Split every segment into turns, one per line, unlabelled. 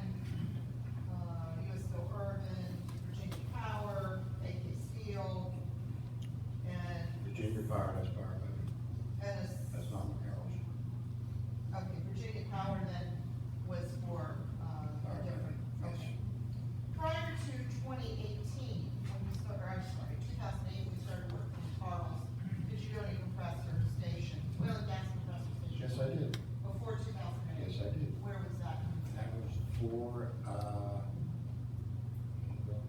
Uh,
fire, that's fire, but
And it's,
that's not McCarroll's.
okay, Virginia Power then was for, uh, a
Fire,
different,
yes.
okay. Prior to twenty eighteen, when we started, or I'm sorry, two thousand eight, we started working with Carl's, because you own a compressor station, we own a gas compressor station.
Yes, I did.
Before two thousand eight.
Yes, I did.
Where was that?
That was for, uh,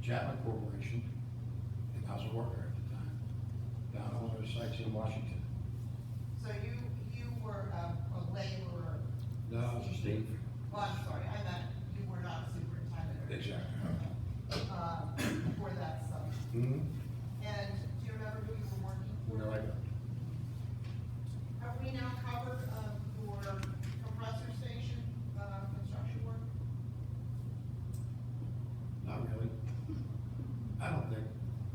Chapman Corporation, and I was a worker at the time, down on those sites in Washington.
So you, you were a a laborer,
No, I was a state.
well, I'm sorry, I meant you were not a superintendent. or-
Exactly.
Okay. Uh, for that sum.
Hmm,
And do you remember who you were working for?
no, I don't.
Have we now covered, uh, your compressor station, uh, construction work?
Not really. I don't think,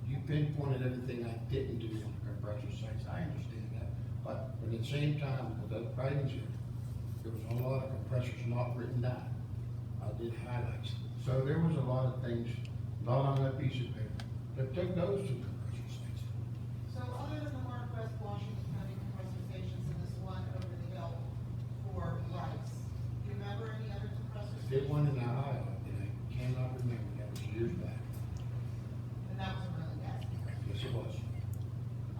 you pinpointed everything I didn't do on the compressor sites, I understand that. But at the same time, with the writings here, there was a lot of compressors not written down. I did highlights. So there was a lot of things not on that piece of paper that took those to compressor sites.
So other than the Northwest Washington County compressor stations and this one over the hill for rice, do you remember any other compressor
I
stations?
did one in Ohio, and I cannot remember, that was years back.
And that was really nasty.
Yes, it was.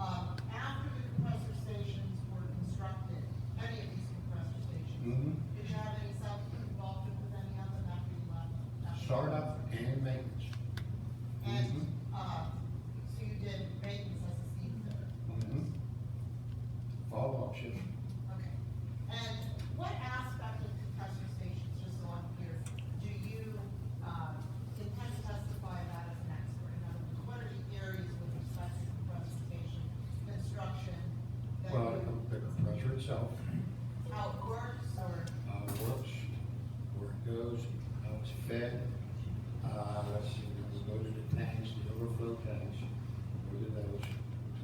Um, after the compressor stations were constructed, any of these compressor stations,
Mhm.
did you have any self-involvement with any of them after you left? after you
Startup
left?
and maintenance.
And,
Mhm.
uh, so you did maintenance as a steam fitter?
Mhm. Follow-up shift.
Okay. And what aspect of compressor stations, just so I'm clear, do you, um, intend to testify about as an expert? In other words, what are the areas with respect to compressor station construction that
Well,
you,
the compressor itself,
how it works or?
uh, works, where it goes, how it's fed. Uh, let's see, we go to the tanks, the overflow tanks, go to those,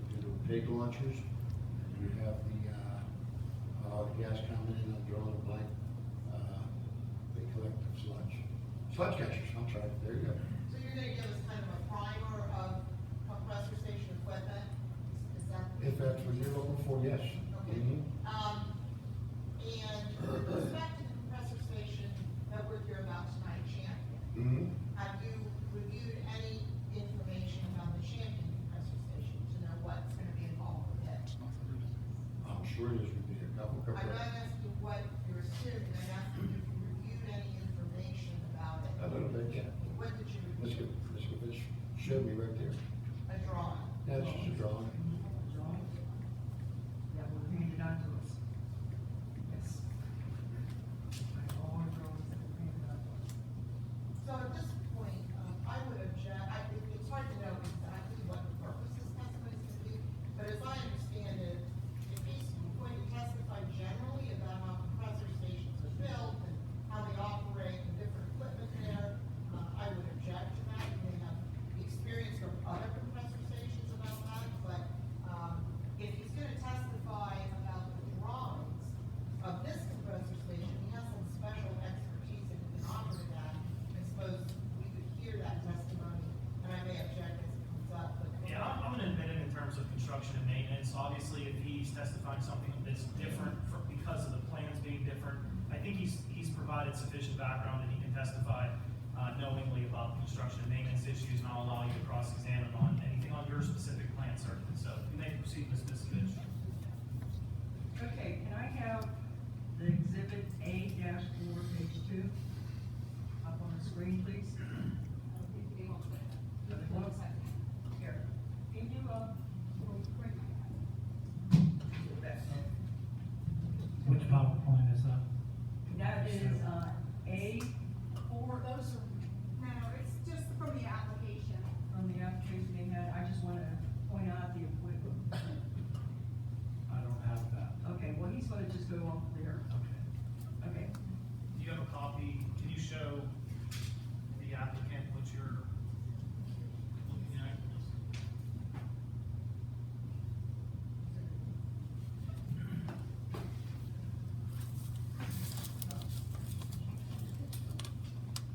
do the pig launchers. and We have the, uh, uh, the gas coming in, I'm drawing a blank, uh, they collect the sludge. Sludge catchers, I'm sorry, there you go.
So you're gonna give us kind of a primer of compressor station equipment? Is that?
If that's what you're looking for, yes.
Okay.
Mhm.
Um, and with respect to the compressor station that we're here about tonight, Champion,
Mhm.
have you reviewed any information about the Champion compressor station to know what's gonna be involved with it?
I'm sure there's gonna be a couple
I'm
compressors.
not asking what you're assuming, I'm asking if you reviewed any information about
A
it.
little bit, yeah.
What did you
Uh, Let's go,
review?
let's go, this showed me right there.
A drawing?
That's just a
Oh,
drawing.
That were handed on to us. Yes. I have all the drawings that were handed on to us.
So at this point, um, I would object, I, it- it's hard to know exactly what the purpose of this testimony is gonna be, but as I understand it, if he's going to testify generally about how compressor stations are built and how they operate and different equipment there, uh, I would object to that, you may have experience from other compressor stations about that, but, um, if he's gonna testify about the drawings of this compressor station, he has some special expertise in the operating that, I suppose we could hear that testimony, and I may object as it comes up, but.
Yeah, I'm, I'm gonna admit it in terms of construction and maintenance, obviously, if he's testifying something that's different for, because of the plans being different, I think he's, he's provided sufficient background that he can testify, uh, knowingly about the construction and maintenance issues, and I'll allow you to cross-examine on anything on your specific plan, sir, so you may proceed, Ms. Miskovich.
Okay, can I have the exhibit A dash four, page two? um, uh,